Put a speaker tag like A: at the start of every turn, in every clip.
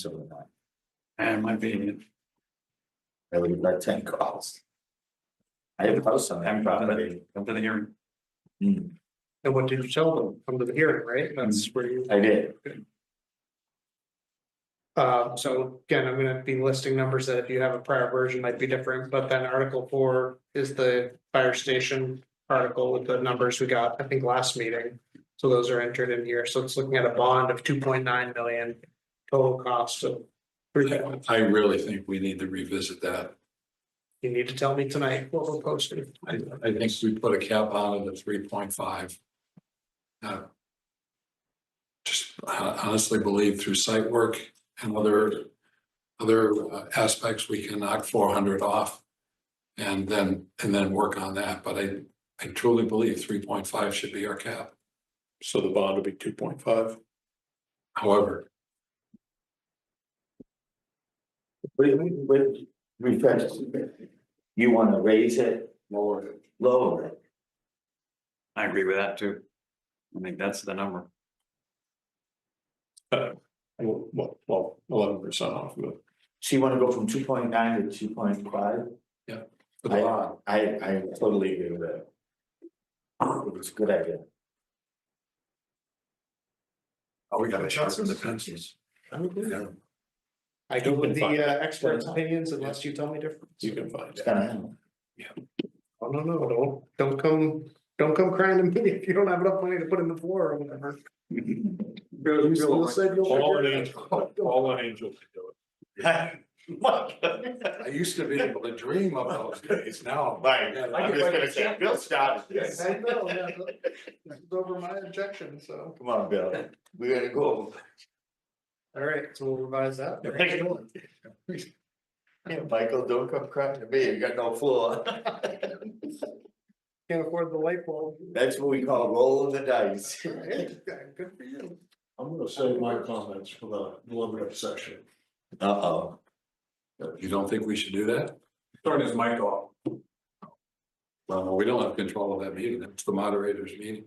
A: So would I.
B: And my opinion,
A: I would have got ten calls. I have a house on that property.
B: come to the hearing.
A: Hmm,
C: And what did you tell them? Come to the hearing, right? That's
D: Mm-hmm.
C: where you,
A: I did.
C: uh, so again, I'm gonna be listing numbers that if you have a prior version might be different, but then article four is the fire station. Article with the numbers we got, I think, last meeting. So those are entered in here. So it's looking at a bond of two point nine million. Total cost of. You
B: I really think we need to revisit that.
C: need to tell me tonight what we're posting.
B: I, I think we put a cap on it at three point five. Just uh, honestly believe through site work and other, other uh, aspects, we can knock four hundred off. And then, and then work on that, but I, I truly believe three point five should be our cap,
D: So the bond will be two point five.
B: however.
A: Wait, wait, wait, refresh. You want to raise it? Lower it. Lower it.
E: I agree with that too. I think that's the number.
D: Well, well, eleven percent off of it.
A: So you want to go from two point nine to two point five?
B: for the bond.
A: I, I totally agree with that. It was a good idea.
B: Oh, we gotta sharpen the pencils. Yeah.
C: I go with the
D: find-
C: uh, experts' opinions unless you tell me different.
D: You can find
A: It's
D: it.
A: gonna happen.
C: Oh, no, no, don't, don't come, don't come crying to me if you don't have enough money to put in the floor or whatever. You still said you'll
D: All an
C: figure it
D: angel,
C: out.
D: all an angel can do
B: I used to be able to dream of those days now.
A: Right.
B: Yeah,
A: I'm just gonna say, Bill started this.
C: I know, yeah, but this is Over my objection, so,
A: Come on, Bill, we gotta go.
C: all right, so we'll revise that.
A: Yeah, Michael, don't come crying to me, you got no floor.
C: Can't afford the light bulb.
A: That's what we call rolling the dice.
C: Right, Good for you.
F: I'm gonna save my comments for the deliberative session.
A: Uh-oh.
B: You don't think we should do that?
D: Turn his mic off.
B: Well, no, we don't have control of that meeting. It's the moderator's meeting.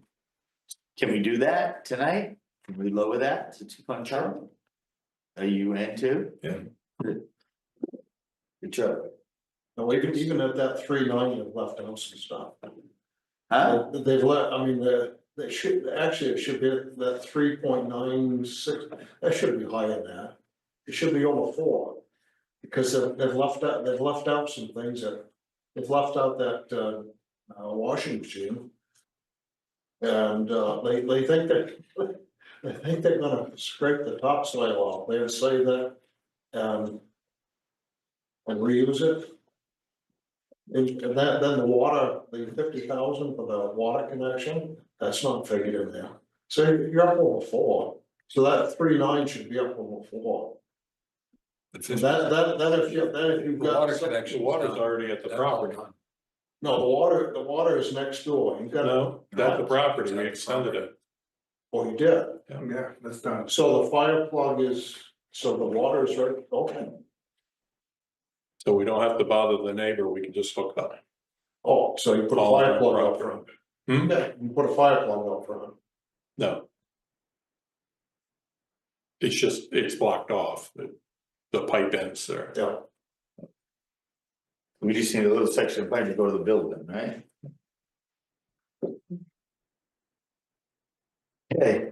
A: Can we do that tonight? Can we lower that to two point five? Are you in too?
D: Yeah.
A: Good job.
F: Now, even, even at that three ninety, they've left out some stuff.
A: Huh?
F: They- They've let, I mean, the, they should, actually, it should be at that three point nine six, that should be higher than that. It should be over four. Because they've, they've left out, they've left out some things that, they've left out that, uh, uh, washing machine. And, uh, they, they think that, they think they're gonna scrape the topsoil off, they say that, um. And reuse it. And and that, then the water, the fifty thousand for the water connection, that's not figured in there. So you're up over four, so that three nine should be up over four.
B: The fif-
F: That, that, that if you, that if
B: The
F: you've got.
B: water
F: some-
B: connection.
D: Water's already at the property.
F: No, the water, the water is next door, you've got,
D: No, that's the property. We extended it.
F: oh, you did,
D: Yeah, that's done.
F: so the fire plug is, so the water is right, okay.
D: So we don't have to bother the neighbor. We can just hook up.
F: Oh, so you put a
D: All
F: fire
D: on
F: plug up
D: property.
F: front.
D: Hmm?
F: Yeah, you put a fire plug up front,
D: No. It's just, it's blocked off. The- The pipe ends there.
F: yeah.
A: We just need a little section of pipe to go to the building, right? Okay.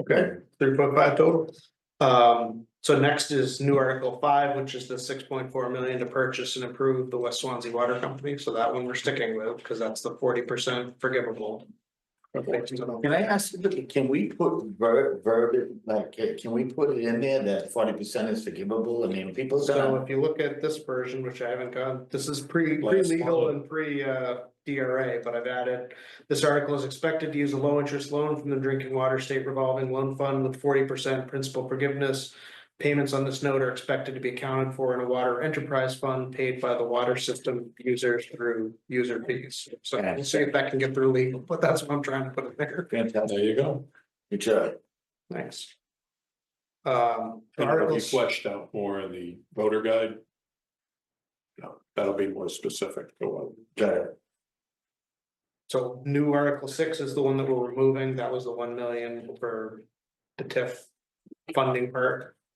C: Okay, three point five total. Um, so next is new article five, which is the six point four million to purchase and improve the West Swansea Water Company. So that one we're sticking with because that's the forty percent forgivable.
A: Can I ask, you, can we put ver- verb, like, uh, can we put it in there that forty percent is forgivable? I mean, people "Oh,
C: So
A: gonna,
C: if you look at this version, which I haven't gone, this is pre,
D: Last
C: pre-legal
D: one.
C: and pre, uh, DRA, but I've added. This article is expected to use a low interest loan from the Drinking Water State Revolving Loan Fund with forty percent principal forgiveness. Payments on this note are expected to be accounted for in a water enterprise fund paid by the water system users through user fees. So we'll see if that can get through legal, but that's what I'm trying to put in there.
A: fantastic,
D: There you go.
A: good job.
C: Thanks. Um,
D: And it'll be
C: articles,
D: fleshed out more in the voter guide. No, That'll be more specific to what
A: Got it.
C: so new article six is the one that we're removing. That was the one million for the TIF funding part.